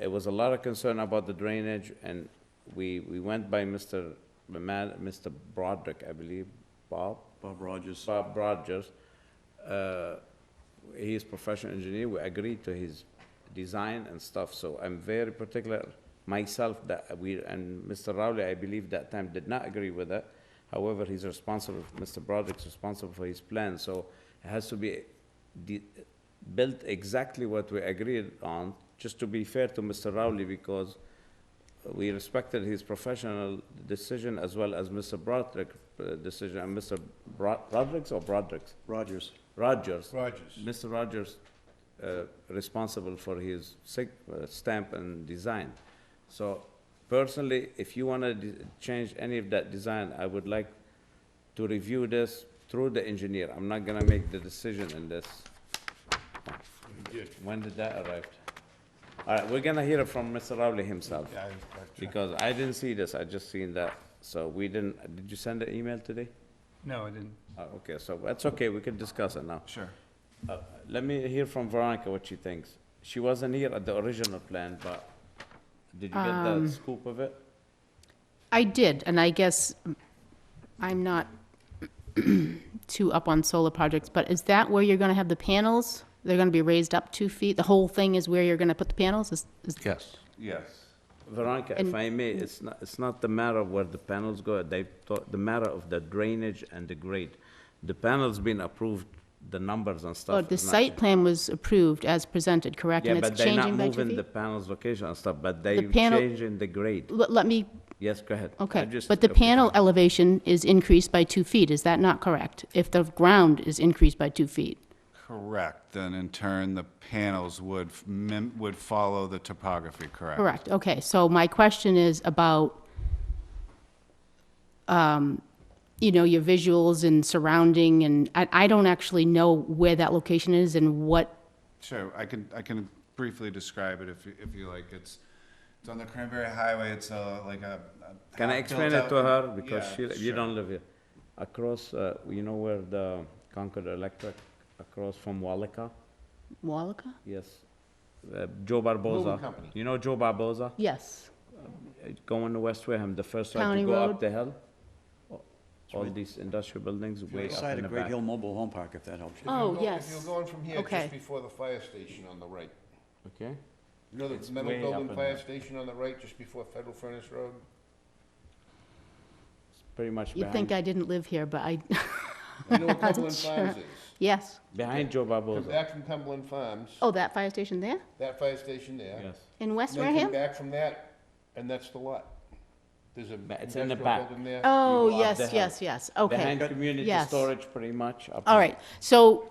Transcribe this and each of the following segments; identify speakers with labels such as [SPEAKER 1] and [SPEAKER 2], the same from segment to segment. [SPEAKER 1] it was a lot of concern about the drainage, and we, we went by Mr. Ma- Mr. Broderick, I believe, Bob,
[SPEAKER 2] Bob Rogers.
[SPEAKER 1] Bob Rogers. Uh, He's professional engineer, we agreed to his design and stuff, so I'm very particular myself that we, and Mr. Rowley, I believe that time did not agree with that. However, he's responsible, Mr. Broderick's responsible for his plan, so it has to be de- built exactly what we agreed on, just to be fair to Mr. Rowley, because we respected his professional decision as well as Mr. Broderick's uh, decision, and Mr. Bro- Broderick's or Broderick's?
[SPEAKER 2] Rogers.
[SPEAKER 1] Rogers.
[SPEAKER 3] Rogers.
[SPEAKER 1] Mr. Rogers, uh, responsible for his sig- uh, stamp and design. So personally, if you want to change any of that design, I would like to review this through the engineer. I'm not going to make the decision in this.
[SPEAKER 3] We did.
[SPEAKER 1] When did that arrive? All right, we're going to hear it from Mr. Rowley himself.
[SPEAKER 3] Yeah, I- I-
[SPEAKER 1] Because I didn't see this, I just seen that. So we didn't, did you send the email today?
[SPEAKER 4] No, I didn't.
[SPEAKER 1] Uh, Okay, so that's okay, we can discuss it now.
[SPEAKER 4] Sure.
[SPEAKER 1] Uh, Let me hear from Veronica what she thinks. She wasn't here at the original plan, but did you get
[SPEAKER 5] Um,
[SPEAKER 1] the scoop of it?
[SPEAKER 5] I did, and I guess I'm not too up on solar projects, but is that where you're gonna have the panels? They're gonna be raised up two feet? The whole thing is where you're gonna put the panels? Is, is,
[SPEAKER 6] Yes, yes.
[SPEAKER 1] Veronica, if
[SPEAKER 5] And-
[SPEAKER 1] I may, it's not, it's not the matter of where the panels go, they, the matter of the drainage and the grade. The panels been approved, the numbers and stuff.
[SPEAKER 5] oh, the
[SPEAKER 1] is not-
[SPEAKER 5] site plan was approved as presented, correct?
[SPEAKER 1] Yeah,
[SPEAKER 5] And it's
[SPEAKER 1] but they're not
[SPEAKER 5] changing by two
[SPEAKER 1] moving
[SPEAKER 5] feet?
[SPEAKER 1] the panels location and stuff, but they
[SPEAKER 5] panel-
[SPEAKER 1] changing the grade.
[SPEAKER 5] Let, let me,
[SPEAKER 1] Yes, go ahead. I
[SPEAKER 5] okay,
[SPEAKER 1] just
[SPEAKER 5] but the
[SPEAKER 1] took your
[SPEAKER 5] panel
[SPEAKER 1] time.
[SPEAKER 5] elevation is increased by two feet, is that not correct? If the ground is increased by two feet?
[SPEAKER 7] Correct, and in turn, the panels would, f- mim- would follow the topography, correct?
[SPEAKER 5] Correct, okay, so my question is about, um, you know, your visuals and surrounding, and I, I don't actually know where that location is and what,
[SPEAKER 7] Sure, I can, I can briefly describe it if, you- if you like. It's, it's on the Cranberry Highway, it's a, like a. a
[SPEAKER 1] Can I
[SPEAKER 7] half-built
[SPEAKER 1] explain it
[SPEAKER 7] out-
[SPEAKER 1] to her? Because she,
[SPEAKER 7] Yeah,
[SPEAKER 1] you
[SPEAKER 7] sure.
[SPEAKER 1] don't live here. Across, uh, you know where the Concord Electric, across from Wallaca?
[SPEAKER 5] Wallaca?
[SPEAKER 1] Yes. Uh, Joe Barboza.
[SPEAKER 7] company.
[SPEAKER 1] You know Joe Barboza?
[SPEAKER 5] Yes,
[SPEAKER 1] Uh, Going to West Wareham, the first right
[SPEAKER 5] County
[SPEAKER 1] you go up
[SPEAKER 5] Road.
[SPEAKER 1] the hill. All these industrial buildings way up
[SPEAKER 2] Side
[SPEAKER 1] in the
[SPEAKER 2] of Great
[SPEAKER 1] back.
[SPEAKER 2] Hill Mobile Home Park, if that helps you.
[SPEAKER 5] oh,
[SPEAKER 3] If you're go- If
[SPEAKER 5] yes,
[SPEAKER 3] you're going from here,
[SPEAKER 5] Okay.
[SPEAKER 3] just before the fire station on the right,
[SPEAKER 1] Okay?
[SPEAKER 3] you know
[SPEAKER 1] It's
[SPEAKER 3] the
[SPEAKER 1] way
[SPEAKER 3] metal
[SPEAKER 1] up in
[SPEAKER 3] building fire
[SPEAKER 1] there.
[SPEAKER 3] station on the right, just before Federal Furnace Road?
[SPEAKER 1] It's pretty much
[SPEAKER 5] you'd think
[SPEAKER 1] behind,
[SPEAKER 5] I didn't live here, but I,
[SPEAKER 3] You know where Cumberland Farms is?
[SPEAKER 5] yes,
[SPEAKER 1] behind Joe
[SPEAKER 3] Come
[SPEAKER 1] Barboza.
[SPEAKER 3] back from Cumberland Farms,
[SPEAKER 5] oh, that fire station there,
[SPEAKER 3] that fire station there.
[SPEAKER 1] Yes.
[SPEAKER 5] in West
[SPEAKER 3] And then come
[SPEAKER 5] Wareham?
[SPEAKER 3] back from that, and that's the lot. There's a
[SPEAKER 1] it's in the
[SPEAKER 3] industrial
[SPEAKER 1] back.
[SPEAKER 3] building there.
[SPEAKER 5] Oh,
[SPEAKER 1] You go up the
[SPEAKER 5] yes,
[SPEAKER 1] hill.
[SPEAKER 5] yes, yes, okay.
[SPEAKER 1] Behind community
[SPEAKER 5] Yes.
[SPEAKER 1] storage, pretty much. up
[SPEAKER 5] All
[SPEAKER 1] there.
[SPEAKER 5] right, so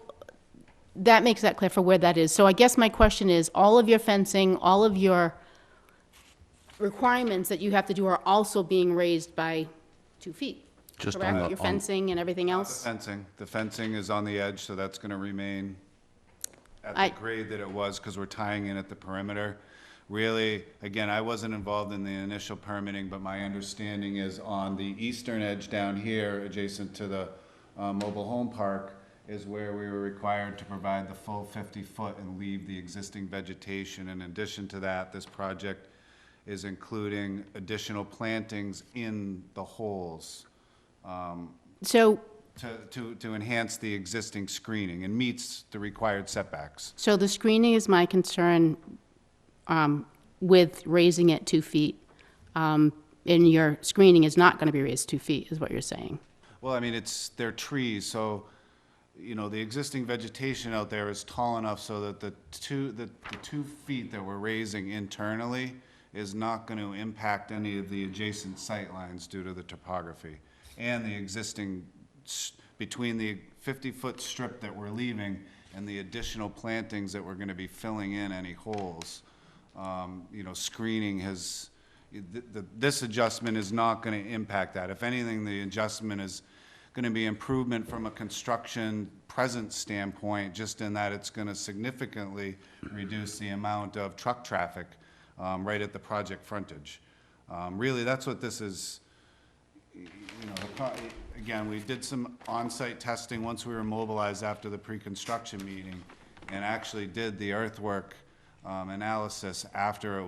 [SPEAKER 5] that makes that clear for where that is. So I guess my question is, all of your fencing, all of your requirements that you have to do are also being raised by two feet?
[SPEAKER 6] Just on
[SPEAKER 5] Correct,
[SPEAKER 6] the-
[SPEAKER 5] your
[SPEAKER 6] on-
[SPEAKER 5] fencing and everything
[SPEAKER 7] The
[SPEAKER 5] else?
[SPEAKER 7] Fencing, the fencing is on the edge, so that's gonna remain at
[SPEAKER 5] I-
[SPEAKER 7] the grade that it was, because we're tying in at the perimeter. Really, again, I wasn't involved in the initial permitting, but my understanding is on the eastern edge down here, adjacent to the uh, mobile home park, is where we were required to provide the full 50-foot and leave the existing vegetation. In addition to that, this project is including additional plantings in the holes
[SPEAKER 5] So,
[SPEAKER 7] to, to, to enhance the existing screening and meets the required setbacks.
[SPEAKER 5] so the screening is my concern um, with raising it two feet. Um, And your screening is not going to be raised two feet, is what you're saying?
[SPEAKER 7] Well, I mean, it's, they're trees, so, you know, the existing vegetation out there is tall enough so that the two, the, the two feet that we're raising internally is not gonna impact any of the adjacent sightlines due to the topography. And the existing, s- between the fifty-foot strip that we're leaving and the additional plantings that we're gonna be filling in any holes, um, you know, screening has, th- th- this adjustment is not going to impact that. If anything, the adjustment is going to be improvement from a construction present standpoint, just in that it's going to significantly reduce the amount of truck traffic um, right at the project frontage. Um, Really, that's what this is, you know, the co- again, we did some on-site testing once we were mobilized after the pre-construction meeting, and actually did the earthwork um, analysis after it was.